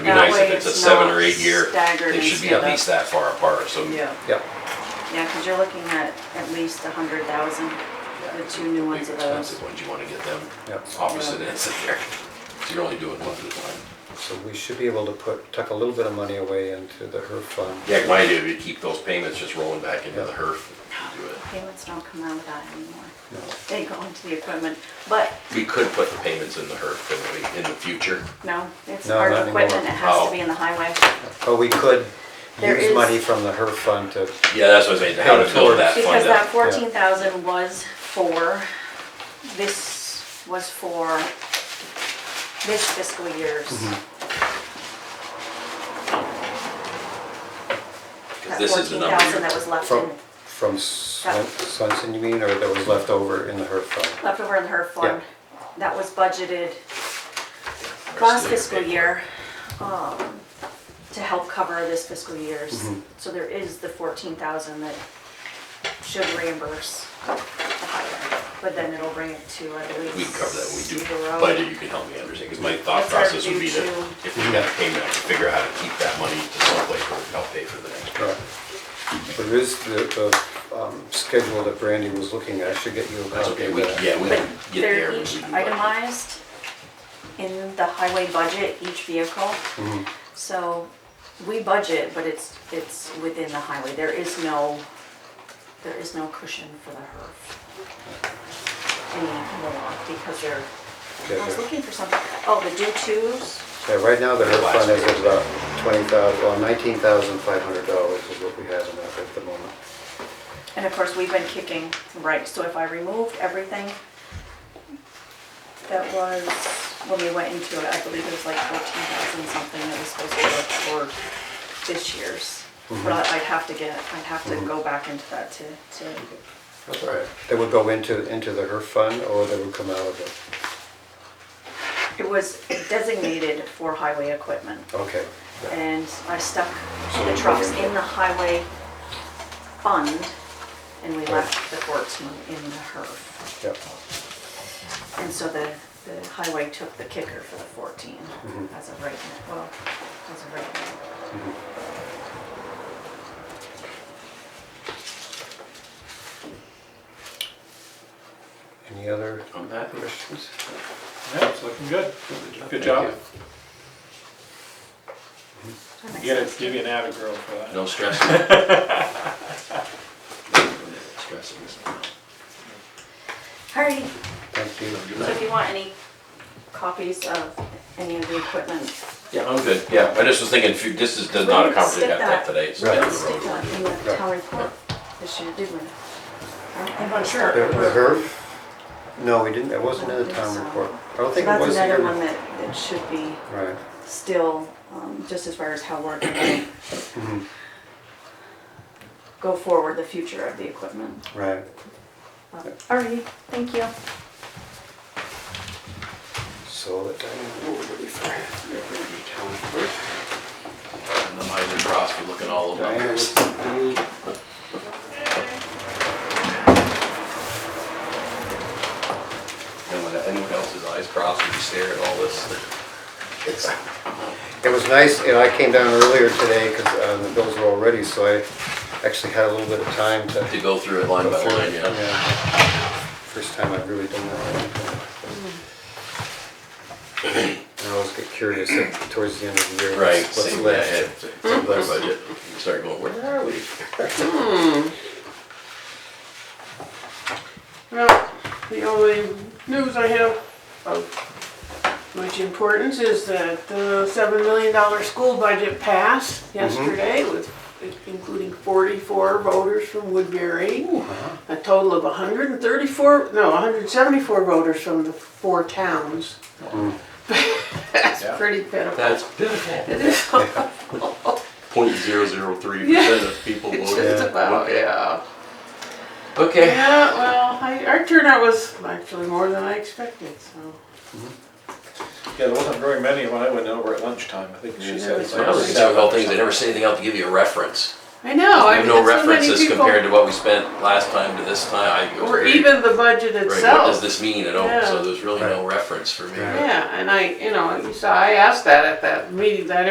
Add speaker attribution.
Speaker 1: be
Speaker 2: That
Speaker 1: nice
Speaker 2: way
Speaker 1: if it's a
Speaker 2: it's
Speaker 1: seven
Speaker 2: not
Speaker 1: or eight year,
Speaker 2: staggered
Speaker 1: they
Speaker 2: and
Speaker 1: should be
Speaker 2: split
Speaker 1: at
Speaker 2: up.
Speaker 1: least that far apart, so.
Speaker 2: Yeah,
Speaker 3: Yep.
Speaker 2: yeah, because you're looking at at least a hundred thousand with two new ones
Speaker 1: Big
Speaker 2: of those.
Speaker 1: expensive ones, you wanna get them
Speaker 3: Yep.
Speaker 1: opposite ends of there, so you're only doing one at a time.
Speaker 3: So we should be able to put, tuck a little bit of money away into the HERF fund.
Speaker 1: Yeah, my idea would be to keep those payments just rolling back into the HERF. and do it.
Speaker 2: Payments don't come out of that anymore.
Speaker 3: No.
Speaker 2: They go into the equipment, but
Speaker 1: We could put the payments in the HERF, couldn't we, in the future?
Speaker 2: no, it's
Speaker 3: No,
Speaker 2: hard
Speaker 3: not
Speaker 2: equipment, it
Speaker 3: anymore.
Speaker 2: has to
Speaker 1: Oh.
Speaker 2: be in the highway.
Speaker 3: But we could
Speaker 2: There
Speaker 3: use
Speaker 2: is-
Speaker 3: money from the HERF fund to,
Speaker 1: Yeah, that's what I was saying, how to build that
Speaker 2: Because
Speaker 1: fund
Speaker 2: that
Speaker 1: up.
Speaker 2: fourteen thousand was for, this was for this fiscal year's.
Speaker 3: Mm-hmm.
Speaker 1: Because
Speaker 2: That
Speaker 1: this is the
Speaker 2: fourteen
Speaker 1: number
Speaker 2: thousand
Speaker 1: you're-
Speaker 2: that was left
Speaker 3: from,
Speaker 2: in,
Speaker 3: from Swen- Swenson, you mean, or that was left over in the HERF fund?
Speaker 2: left over in the HERF fund. That was budgeted last fiscal year, um, to help cover this fiscal year's.
Speaker 1: Mm-hmm.
Speaker 2: So there is the fourteen thousand that should reimburse the highway, but then it'll bring it to, I believe.
Speaker 1: We can cover that, when we do,
Speaker 2: zero.
Speaker 1: but you can help me understand, because my thought
Speaker 2: That's our
Speaker 1: process would be to,
Speaker 2: due to-
Speaker 1: if we got a payment, I could figure out how to keep that money to someplace where we help pay for the next.
Speaker 3: Right. There is the, the um, schedule that Brandy was looking at, I should get you a
Speaker 1: That's
Speaker 3: copy
Speaker 1: okay,
Speaker 3: of
Speaker 1: we,
Speaker 3: that.
Speaker 1: yeah, we
Speaker 2: But
Speaker 1: can get there.
Speaker 2: they're
Speaker 1: when we
Speaker 2: each
Speaker 1: do budget.
Speaker 2: itemized in the highway budget, each vehicle.
Speaker 1: Mm-hmm.
Speaker 2: So we budget, but it's, it's within the highway. There is no, there is no cushion for the HERF anymore because they're, I was
Speaker 3: Yeah,
Speaker 2: looking for something, oh, the due tos,
Speaker 3: Yeah, right now the HERF
Speaker 1: Last
Speaker 3: fund is
Speaker 1: year.
Speaker 3: about twenty thousand, well, nineteen thousand five hundred dollars is what we have in that at the moment.
Speaker 2: and of course, we've been kicking, right, so if I removed everything that was, when we went into it, I believe it was like fourteen thousand something that was supposed to go toward this year's. But I- I'd have to get, I'd have to go back into that to, to,
Speaker 1: That's all right.
Speaker 3: That would go into, into the HERF fund, or that would come out of the,
Speaker 2: it was designated for highway equipment.
Speaker 3: okay.
Speaker 2: And I stuck the trucks in the highway fund and we left the courts money in the HERF.
Speaker 3: Yep.
Speaker 2: And so the, the highway took the kicker for the fourteen
Speaker 3: Mm-hmm.
Speaker 2: as of right now, well, as of right now.
Speaker 3: Any other
Speaker 1: On that,
Speaker 3: questions?
Speaker 4: Yeah, it's looking good. Good job.
Speaker 2: That makes
Speaker 4: You gotta
Speaker 2: sense.
Speaker 4: give you an avid girl for that.
Speaker 1: no stress. Stress is-
Speaker 2: All righty.
Speaker 3: Thank you.
Speaker 1: Good
Speaker 2: so if
Speaker 1: night.
Speaker 2: you want any copies of any of the equipment.
Speaker 1: Yeah, I'm good, yeah, I just was thinking, if you- this is, does not
Speaker 2: We didn't
Speaker 1: accommodate
Speaker 2: stick
Speaker 1: that
Speaker 2: that.
Speaker 1: stuff today, it's
Speaker 3: Right.
Speaker 1: down the
Speaker 2: Stick
Speaker 1: road.
Speaker 2: that in the town report this year, did we? I'm not
Speaker 3: The
Speaker 2: sure.
Speaker 3: the HERF? No, we didn't, it wasn't in the town report. I don't think it was
Speaker 2: That's
Speaker 3: here.
Speaker 2: another one that, that should be
Speaker 3: Right.
Speaker 2: still, um, just as far as how we're gonna
Speaker 3: Mm-hmm.
Speaker 2: go forward, the future of the equipment.
Speaker 3: Right.
Speaker 2: Alrighty, thank you.
Speaker 3: So that,
Speaker 1: And the miles are crossed, we're looking all over.
Speaker 3: Diana, what's the-
Speaker 1: And when anyone else's eyes cross, we stare at all this.
Speaker 3: It was nice, you know, I came down earlier today because the bills were all ready, so I actually had a little bit of time to.
Speaker 1: To go through it line by
Speaker 3: go through
Speaker 1: line,
Speaker 3: it.
Speaker 1: yeah.
Speaker 3: First time I've really done that. I always get curious at- towards the end of the year.
Speaker 1: Right,
Speaker 3: what's- What's
Speaker 1: same
Speaker 3: left?
Speaker 1: budget,
Speaker 2: Hmm?
Speaker 1: same budget. You Start going, where are we?
Speaker 5: Well, the only news I have of much importance is that the seven million dollar school budget passed yesterday with including forty-four voters from Woodbury, a total of hundred and thirty-four, no, hundred and seventy-four voters from the four towns. That's
Speaker 4: Yeah.
Speaker 5: pretty pitiful.
Speaker 1: That's pitiful.
Speaker 5: It is
Speaker 1: Point zero zero three percent of people voted.
Speaker 5: just about, yeah.
Speaker 1: Okay.
Speaker 5: Yeah, well, I, our turnout was actually more than I expected, so.
Speaker 4: Yeah, there wasn't very many when I went over at lunchtime. I think she said.
Speaker 1: So I was thinking about things, they never say anything else to give you a reference.
Speaker 5: I know.
Speaker 1: I
Speaker 5: I
Speaker 1: have
Speaker 5: mean,
Speaker 1: no
Speaker 5: so many
Speaker 1: references
Speaker 5: people-
Speaker 1: compared to what we spent last time to this time. I-
Speaker 5: Or even the budget
Speaker 1: Right, what does
Speaker 5: itself.
Speaker 1: this mean at all? So
Speaker 5: Yeah.
Speaker 1: there's really no reference for me.
Speaker 3: Right.
Speaker 5: Yeah, and I, you know, you saw, I asked that at that meeting, that